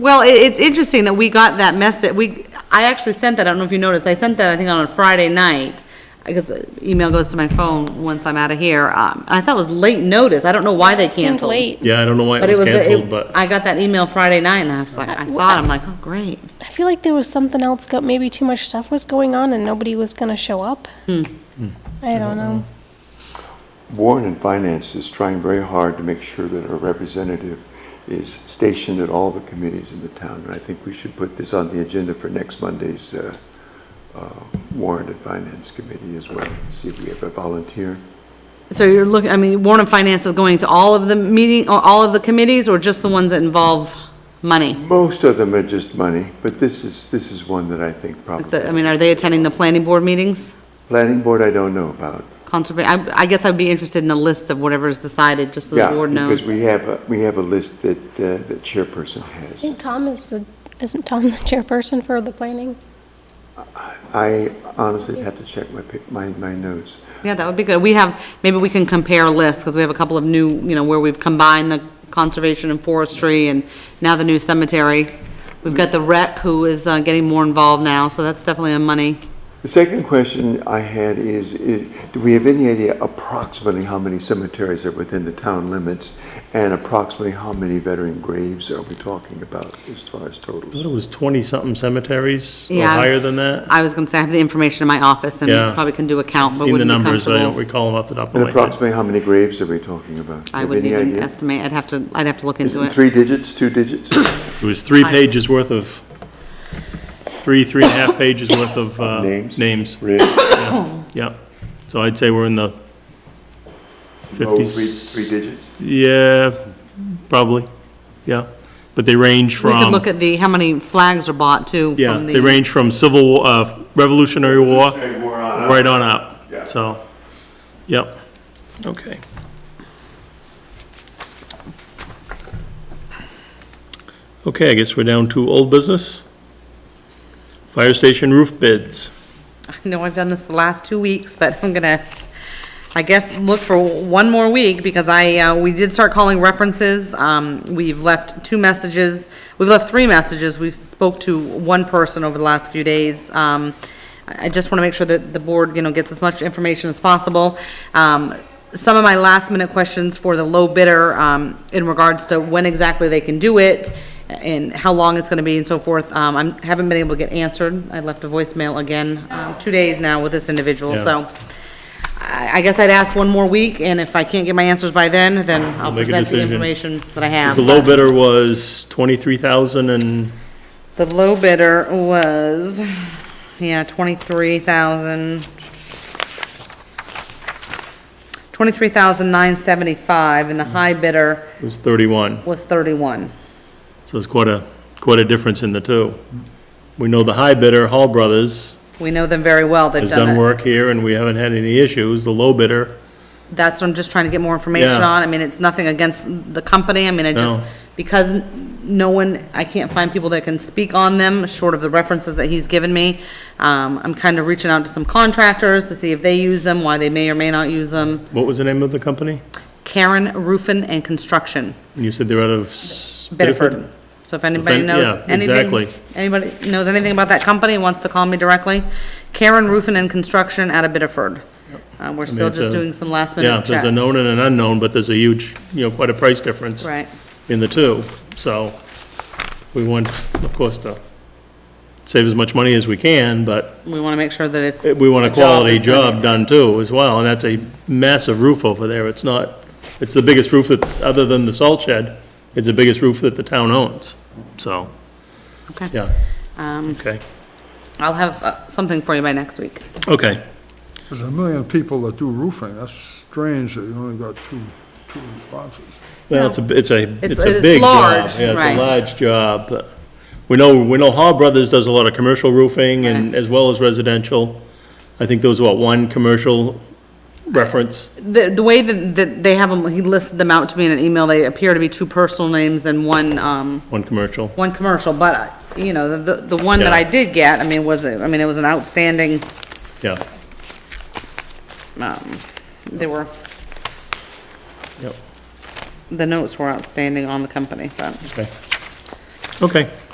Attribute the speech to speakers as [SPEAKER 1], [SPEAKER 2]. [SPEAKER 1] Well, i- it's interesting that we got that message, we, I actually sent that, I don't know if you noticed, I sent that, I think, on a Friday night, because the email goes to my phone once I'm out of here, um, I thought it was late notice, I don't know why they
[SPEAKER 2] It seemed
[SPEAKER 1] canceled.
[SPEAKER 2] late.
[SPEAKER 3] Yeah, I don't know why it
[SPEAKER 1] But it
[SPEAKER 3] was
[SPEAKER 1] was,
[SPEAKER 3] canceled,
[SPEAKER 1] it-
[SPEAKER 3] but
[SPEAKER 1] I got that email Friday night, and I was like, I saw it, I'm like, oh, great.
[SPEAKER 2] I feel like there was something else, got, maybe too much stuff was going on and nobody was gonna show up.
[SPEAKER 1] Hmm.
[SPEAKER 2] I don't know.
[SPEAKER 4] Warren and Finance is trying very hard to make sure that our representative is stationed at all the committees in the town, and I think we should put this on the agenda for next Monday's uh, uh, Warren and Finance Committee as well, see if we have a volunteer.
[SPEAKER 1] So you're looking, I mean, Warren and Finance is going to all of the meeting, or all of the committees, or just the ones that involve money?
[SPEAKER 4] Most of them are just money, but this is, this is one that I think
[SPEAKER 1] Like
[SPEAKER 4] probably.
[SPEAKER 1] the- I mean, are they attending the planning board meetings?
[SPEAKER 4] Planning Board, I don't know about.
[SPEAKER 1] Conserva, I, I guess I'd be interested in a list of whatever's decided, just so the board
[SPEAKER 4] Yeah,
[SPEAKER 1] knows.
[SPEAKER 4] because we have, a- we have a list that, uh, the chairperson
[SPEAKER 2] I
[SPEAKER 4] has.
[SPEAKER 2] think Tom is the, isn't Tom the chairperson for the planning?
[SPEAKER 4] I honestly have to check my, pic- my, my notes.
[SPEAKER 1] Yeah, that would be good. We have, maybe we can compare lists, because we have a couple of new, you know, where we've combined the conservation and forestry, and now the new cemetery. We've got the rec, who is uh, getting more involved now, so that's definitely a money.
[SPEAKER 4] The second question I had is, is, do we have any idea approximately how many cemeteries are within the town limits? And approximately how many veteran graves are we talking about as far as
[SPEAKER 3] I thought
[SPEAKER 4] totals?
[SPEAKER 3] it was 20-something cemeteries, or
[SPEAKER 1] Yeah, I
[SPEAKER 3] higher
[SPEAKER 1] was-
[SPEAKER 3] than that.
[SPEAKER 1] I was gonna say, I have the information in my office, and
[SPEAKER 3] Yeah.
[SPEAKER 1] probably can do a count, but
[SPEAKER 3] Seen the
[SPEAKER 1] wouldn't be
[SPEAKER 3] numbers, but I don't
[SPEAKER 1] comfortable.
[SPEAKER 3] recall them off the top
[SPEAKER 4] And
[SPEAKER 3] of my head.
[SPEAKER 4] approximately how many graves are we talking about? Do you
[SPEAKER 1] I
[SPEAKER 4] have
[SPEAKER 1] wouldn't
[SPEAKER 4] any
[SPEAKER 1] even
[SPEAKER 4] idea?
[SPEAKER 1] estimate, I'd have to, I'd have to look
[SPEAKER 4] Is
[SPEAKER 1] into
[SPEAKER 4] it
[SPEAKER 1] it.
[SPEAKER 4] three digits, two digits?
[SPEAKER 3] It was three pages worth of, three, three and a half pages worth of uh,
[SPEAKER 4] Names?
[SPEAKER 3] names,
[SPEAKER 4] Really?
[SPEAKER 3] yeah. So I'd say we're in the
[SPEAKER 4] Oh,
[SPEAKER 3] 50s.
[SPEAKER 4] three, three digits?
[SPEAKER 3] Yeah, probably, yeah. But they range
[SPEAKER 1] We
[SPEAKER 3] from.
[SPEAKER 1] could look at the, how many flags are bought, too,
[SPEAKER 3] Yeah,
[SPEAKER 1] from the.
[SPEAKER 3] they range from Civil, uh, Revolutionary War right on
[SPEAKER 4] Yeah.
[SPEAKER 3] up, so, yep, okay. Okay, I guess we're down to old business. Fire station roof bids.
[SPEAKER 1] I know I've done this the last two weeks, but I'm gonna, I guess, look for one more week, because I, uh, we did start calling references. Um, we've left two messages, we've left three messages. We've spoke to one person over the last few days. Um, I I just wanna make sure that the board, you know, gets as much information as possible. Um, some of my last minute questions for the low bidder, um, in regards to when exactly they can do it and how long it's gonna be and so forth, um, I'm, haven't been able to get answered. I left a voicemail again, um, two days now with this individual,
[SPEAKER 3] Yeah.
[SPEAKER 1] so. I, I guess I'd ask one more week, and if I can't get my answers by then, then I'll
[SPEAKER 3] make a
[SPEAKER 1] present the
[SPEAKER 3] decision.
[SPEAKER 1] information that I have.
[SPEAKER 3] The low bidder was twenty-three thousand and,
[SPEAKER 1] The low bidder was, yeah, twenty-three thousand. Twenty-three thousand nine seventy-five, and the high bidder
[SPEAKER 3] it was thirty-one,
[SPEAKER 1] was thirty-one.
[SPEAKER 3] so it's quite a, quite a difference in the two. We know the high bidder, Hall Brothers,
[SPEAKER 1] We know them very well, they've
[SPEAKER 3] has
[SPEAKER 1] done
[SPEAKER 3] done
[SPEAKER 1] it.
[SPEAKER 3] work here and we haven't had any issues. The low bidder,
[SPEAKER 1] That's what I'm just trying to get more information
[SPEAKER 3] Yeah.
[SPEAKER 1] on, I mean, it's nothing against the company, I mean, I just,
[SPEAKER 3] No.
[SPEAKER 1] because n- no one, I can't find people that can speak on them, short of the references that he's given me. Um, I'm kind of reaching out to some contractors to see if they use them, why they may or may not use them.
[SPEAKER 3] what was the name of the company?
[SPEAKER 1] Karen Roofing and Construction,
[SPEAKER 3] And you said they're out of S-
[SPEAKER 1] Bedford.
[SPEAKER 3] Bedford?
[SPEAKER 1] So if anybody
[SPEAKER 3] Then-
[SPEAKER 1] knows
[SPEAKER 3] yeah,
[SPEAKER 1] anything,
[SPEAKER 3] exactly.
[SPEAKER 1] anybody knows anything about that company, and wants to call me directly, Karen Roofing and Construction out of Bedford. Uh, we're still
[SPEAKER 3] it's
[SPEAKER 1] just
[SPEAKER 3] a-
[SPEAKER 1] doing some last
[SPEAKER 3] Yeah,
[SPEAKER 1] minute
[SPEAKER 3] there's
[SPEAKER 1] checks.
[SPEAKER 3] a known and an unknown, but there's a huge, you know, quite a price difference
[SPEAKER 1] Right,
[SPEAKER 3] in the two. So we want, of course, to save as much money as we can, but
[SPEAKER 1] we want to make sure that it's.
[SPEAKER 3] Eh, we want a
[SPEAKER 1] job
[SPEAKER 3] quality
[SPEAKER 1] that's gonna-
[SPEAKER 3] job done too as well. And that's a massive roof over there. It's not, it's the biggest roof that, other than the salt shed, it's the biggest roof that the town owns. So,
[SPEAKER 1] Okay.
[SPEAKER 3] yeah.
[SPEAKER 1] Um,
[SPEAKER 3] Okay,
[SPEAKER 1] I'll have uh, something for you by next week.
[SPEAKER 3] okay.
[SPEAKER 5] There's a million people that do roofing, that's strange that you only got two, two responses.
[SPEAKER 3] Well, it's a, it's a,
[SPEAKER 1] It's-
[SPEAKER 3] it's a
[SPEAKER 1] it's
[SPEAKER 3] big job.
[SPEAKER 1] large,
[SPEAKER 3] Yeah,
[SPEAKER 1] right.
[SPEAKER 3] it's a large job. but We know, we know Hall Brothers does a lot of commercial roofing and,
[SPEAKER 1] Right.
[SPEAKER 3] as well as residential. I think there was, what, one commercial reference?
[SPEAKER 1] The, the way that, that they have them, he listed them out to me in an email, they appear to be two personal names and one, um,
[SPEAKER 3] One commercial.
[SPEAKER 1] one commercial, but, uh, you know, the, the one that I
[SPEAKER 3] Yeah.
[SPEAKER 1] did get, I mean, was, a- I mean, it was an outstanding,
[SPEAKER 3] Yeah,
[SPEAKER 1] um, they were,
[SPEAKER 3] yep,
[SPEAKER 1] the notes were outstanding on the company, but,
[SPEAKER 3] okay. Okay.